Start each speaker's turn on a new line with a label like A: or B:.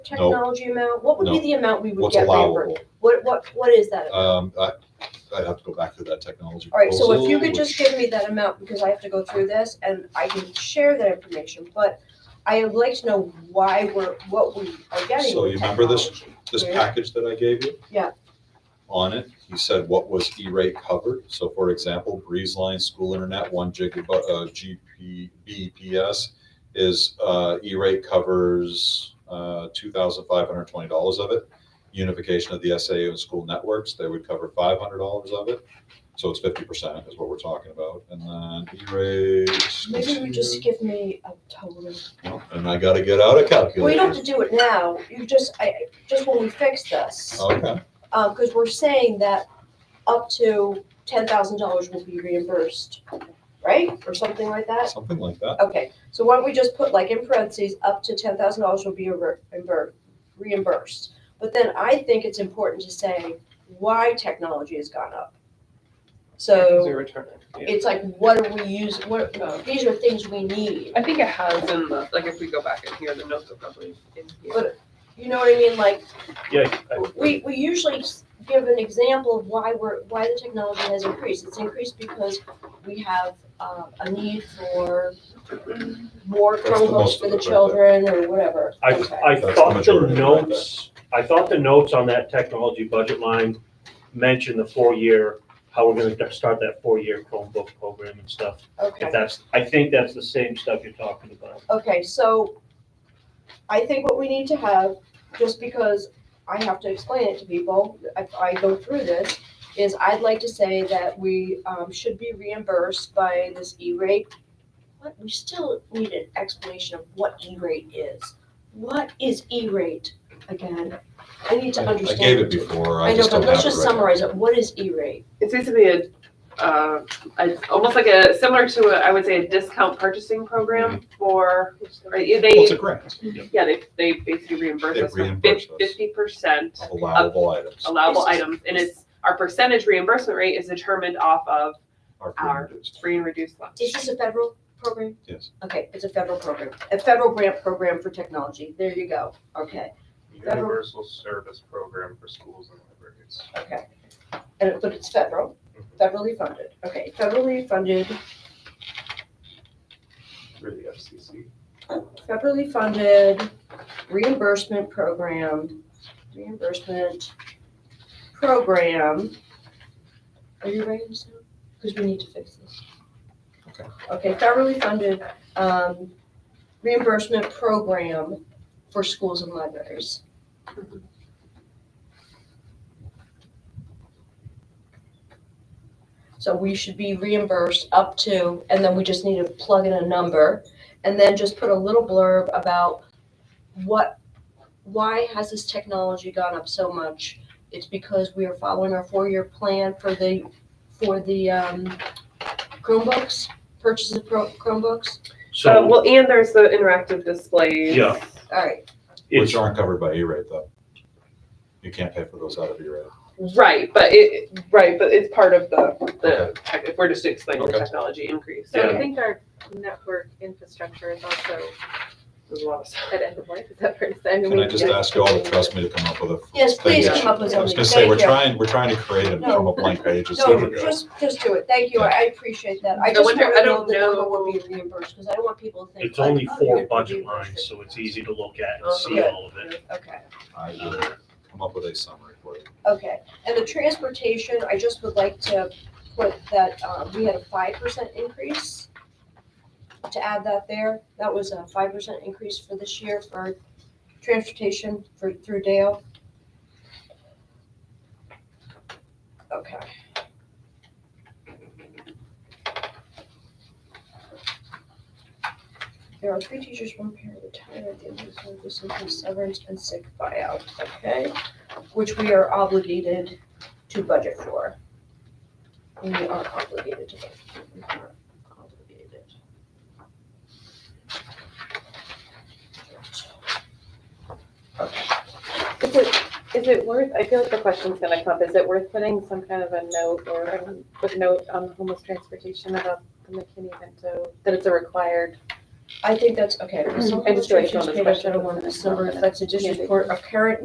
A: technology amount? What would be
B: No.
A: the amount we would
B: what's
A: get
B: allowable.
A: reimbursed? What, what, what is that? amount?
B: Um, I, I'd have to go back to that technology.
A: All right, so if you
B: proposal,
A: could just
B: which-
A: give me that amount, because I have to go through this and I can share that information, but I would like to know why we're, what we are getting.
B: So
A: with
B: you remember this-
A: technology.
B: This
A: Yeah.
B: package that I gave you?
A: Yeah.
B: On it, he said what was E-rate covered. So for example, Breeze Line School Internet, one gig, uh, GP, BPS is, uh, E-rate covers, uh, two thousand five hundred twenty dollars of it. Unification of the SAU and school networks, they would cover five hundred dollars of it. So it's fifty percent is what we're talking about. And then E-rate.
A: Maybe you just give me a total.
B: And I gotta get out a calculator.
A: Well, you don't have to do it now. You just, I, I- just when we fix this.
B: Okay,
A: Uh, because we're saying that up to ten thousand dollars will be reimbursed, right? Or something like that?
B: something like that.
A: Okay, so why don't we just put like in parentheses, up to ten thousand dollars will be re- reimbur- reimbursed? But then I think it's important to say why technology has gone up. So
C: Zero turn in, yeah.
A: it's like, what are we using, what, these are things we need.
C: I think it has in the, like, if we go back in here, the notes are probably in here.
A: But- You know what I mean? Like,
D: Yeah, I-
A: We, we usually give an example of why we're, why the technology has increased. It's increased because we have uh, a need for more
B: That's the most
A: Chromebooks for the
B: of it right
A: children or whatever.
D: I,
A: Okay.
D: I
B: That's the
D: thought the
B: majority right there.
D: notes, I thought the notes on that technology budget line mentioned the four-year, how we're gonna d- start that four-year Chromebook program and stuff. If
A: Okay,
D: that's, I think that's the same stuff you're talking about.
A: okay, so I think what we need to have, just because I have to explain it to people, I, I go through this, is I'd like to say that we um, should be reimbursed by this E-rate But we still need an explanation of what E-rate is. What is E-rate again? I need to
B: I-
A: understand.
B: I gave it before, I
A: I know,
B: just
A: but
B: don't
A: let's
B: have it
A: just
B: right.
A: summarize it. What is E-rate?
C: It's basically a, uh, a- almost like a, similar to, a- I would say, a discount purchasing program for, right, yeah,
B: Mm-hmm. Well, it's a
C: they,
B: grant,
C: yeah, they, they basically reimburse
B: They
C: us for
B: reimburse us.
C: fifty percent
B: of allowable items,
A: Oh,
C: allowable
A: This is-
C: items, and it's, our percentage reimbursement rate is determined off of
B: are
C: our
B: reimbursed,
C: free and reduced lunch.
A: Is this a federal program?
B: yes.
A: Okay, it's a federal program, a federal grant program for technology. There you go. Okay,
E: Universal Service Program for Schools and Libraries.
A: okay. And, but it's federal, federally funded. Okay, federally funded,
E: Through the FCC.
A: federally funded reimbursement program, reimbursement program. Are you writing this down? Because we need to fix this.
B: Okay.
A: Okay, federally funded, um, reimbursement program for schools and libraries. So we should be reimbursed up to, and then we just need to plug in a number and then just put a little blurb about what, why has this technology gone up so much? It's because we are following our four-year plan for the, for the um, Chromebooks, purchase of Chrome- Chromebooks.
C: Uh,
D: So
C: well, and there's the interactive displays.
D: Yeah.
A: All right,
D: it's,
B: Which aren't covered by E-rate though. You can't pay for those out of E-rate.
C: Right, but it, right, but it's part of the, the,
B: Okay.
C: tech- if we're just explaining the
B: Okay.
C: technology increase.
F: So I
D: Yeah.
F: think our network infrastructure is also
C: There's a lot of stuff.
F: at end of life, is that fair to say?
B: Can I just
F: Yeah.
B: ask you all to trust me to come up with a? f-
A: yes, please
B: thing?
A: come up with
B: I was
A: something,
B: gonna say, we're
A: thank you.
B: trying, we're trying to create it
A: No.
B: from a blank page. It's
A: No,
B: difficult.
A: just, just do it, thank you, I I appreciate that. I
C: No
A: just
C: wonder-
A: wanna
C: I
A: know
C: don't
A: the number
C: know.
A: we're being reimbursed, because I don't want people to think.
D: it's only
A: like, oh,
D: four
A: you're
D: budget
A: reimbursed.
D: lines, so it's easy to look at and see all of it.
A: Okay.
B: I will come up with a summary for you.
A: Okay, and the transportation, I just would like to put that, uh, we had a five percent increase. To add that there, that was a five percent increase for this year for transportation for, through Dale. Okay. There are three teachers, one parent retired at the end of the school, this includes severance and sick buyout, okay? which we are obligated to budget for. We are obligated to budget. We are obligated.
F: Is it, is it worth, I feel like the question's gonna come, is it worth putting some kind of a note or a footnote on homeless transportation about the McKinney Vento, that it's a required
A: I think that's, okay.
F: I just wrote it down as a question.
A: Mm-hmm. December, that's a district court of current